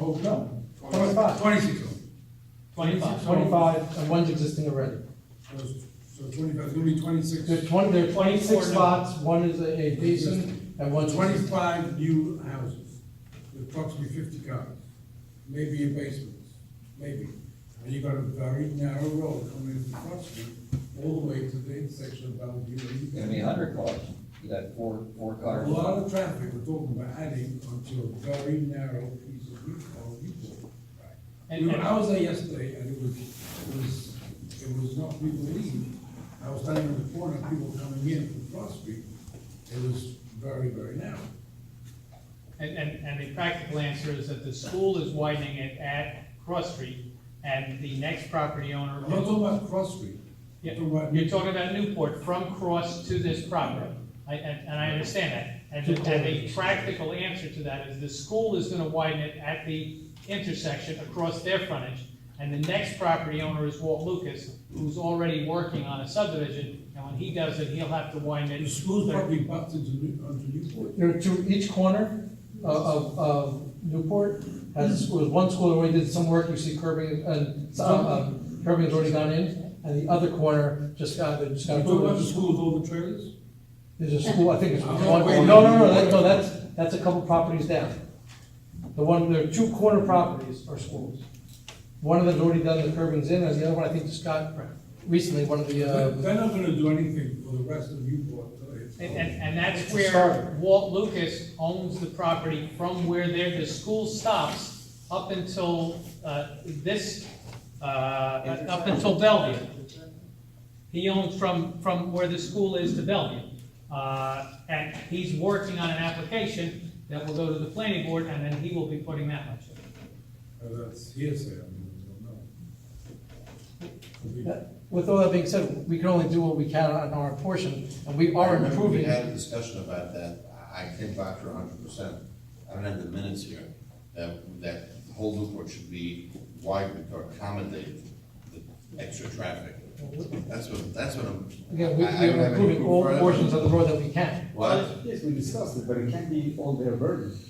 oh, no, twenty-five. Twenty-six of them. Twenty-five. Twenty-five, and one's existing already. So so twenty-five, it's gonna be There are twenty-six. twenty, there are Four twenty-six no. spots, one is a a basin, and one's. Twenty-five new houses, with approximately fifty cars, maybe in basements, maybe. And you got a very narrow road coming in from Front Street, all the way to the intersection of Bellevue and. It's gonna be a hundred cars, you got four, four A cars. lot of traffic, we're talking about adding onto a very narrow piece of route or route. And- We were- and- I was there yesterday, and it was, it was, it was not people leaving. I was standing in the corner, people coming in from Cross Street. It was very, very narrow. And, and, and the practical answer is that the school is widening it at Cross Street, and the next property owner. I'm not talking about Cross Street. Yeah, I'm talking about- You're talking about Newport, from Cross to this property, I, and, and I understand that. And the, and the practical answer to that is the school is gonna widen it at the intersection across their frontage, and the next property owner is Walt Lucas, who's already working on a subdivision, and when he does it, he'll have to widen The it. school's probably bumped into New, onto Newport. There are two, each corner of, of, of Newport has a school, There's one school that already did some work, you see curbing, and, some, um, curbing has already gone in, and the other corner just got, they just You're got. talking about the school with all the trailers? There's a school, I think it's one, I'm no, not Oh, no, waiting. no, that, no, that's, that's a couple properties down. The one, there are two corner properties are schools. One of them's already done the curbings in, and the other one, I think, just got recently, one of the, They're uh, they're not gonna do anything for the rest of Newport until it's. And, and, and that's It's a starter. where Walt Lucas owns the property from where there, the school stops up until, uh, this, uh, up until Bellevue. He owns from, from where the school is to Bellevue. Uh, and he's working on an application that will go to the planning board, and then he will be putting that much in. Uh, That's hearsay, I mean, I don't know. that- with all that being said, we can only do what we can on our portion, and we are improving. We had a discussion about that, I I think Dr. hundred percent, I don't have the minutes here, that, that the whole Newport should be widened to accommodate the extra traffic. That's what, that's what I'm. Again, we, we I- I don't are have improving any proof all for it. portions of the road that we can. What? Yes, we discussed it, but it can't be all their burden. It's-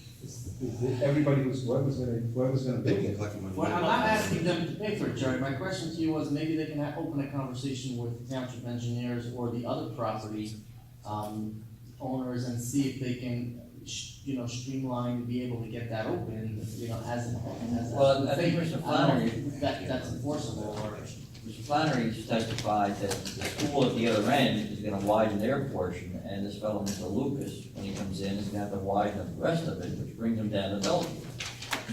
it's- Everybody who's, whoever's gonna, whoever's gonna They build can it. collect them. Well, I'm not asking them to pay for it, Jerry, my question to you was, maybe they can ha- open a conversation with township engineers or the other property, um, owners and see if they can, sh- you know, streamline, be able to get that open, you know, as, as. Well, I think I Mr. don't know Flannery, if That, that's enforceable, or, Mr. Flannery just testified that the school at the other end is gonna widen their portion, and this fellow, Mr. Lucas, when he comes in, is gonna have to widen the rest of it, which brings him down to Bellevue.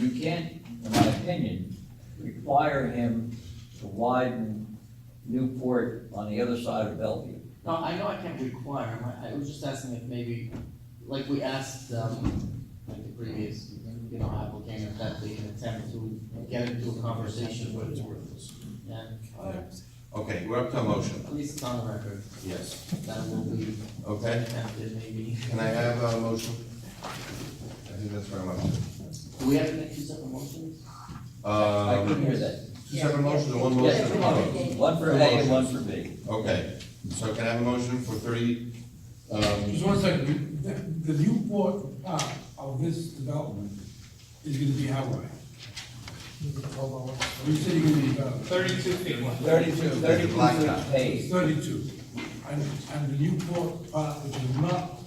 You can't, in my opinion, require him to widen Newport on the other side of Bellevue. no, I know I can't require, I, I was just asking if maybe, like we asked, um, like the previous, you know, applicant, if that they can attempt to get into a conversation with, yeah, Okay, we're up to a motion, at least it's on the record. yes, That will be okay, attempted maybe. can I have a motion? I think that's very much. Do we have to make two separate motions? I couldn't Um, hear that. two separate motions or one Yes, motion? come on. One for A and one for B. Okay, so can I have a motion for thirty, um, Just one second, the, the Newport part of this development is gonna be how wide? You said you're gonna be about Thirty-two feet. Thirty-two, thirty-two Blacktop. feet paved. thirty-two, and, and the Newport part, which is not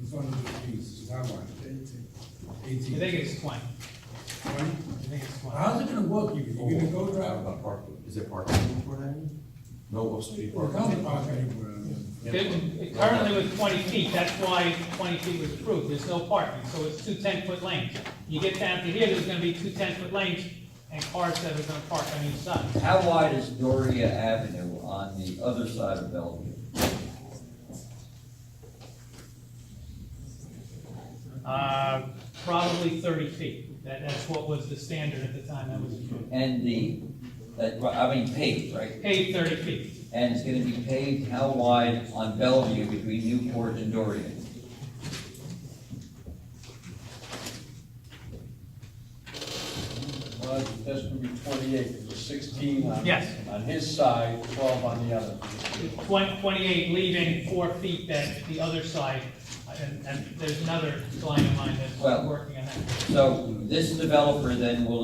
in front of the piece, is how wide? Eighteen. I Eighteen. think it's twenty, Right? I think it's twenty. How's it gonna work, you, you're gonna go drive, About parking, is it parking in Newport Avenue? No, Oak Street or come parking? park anywhere, I mean. It- Currently with twenty feet, that's why twenty feet was approved, there's no parking, so it's two ten-foot lanes. You get down to here, there's gonna be two ten-foot lanes and cars that are gonna park on each side. How wide is Doria Avenue on the other side of Bellevue? Uh, probably thirty feet, that, that's what was the standard at the time that was approved. And the, that, I mean paved, right? Paid thirty feet, And it's gonna be paved how wide on Bellevue between Newport and Doria? Well, that's gonna be twenty-eight, because it's sixteen on. Yes. On his side, twelve on the other. Twen- twenty-eight, leaving four feet that the other side, and, and there's another client of mine that's Well- working on that. So this developer then will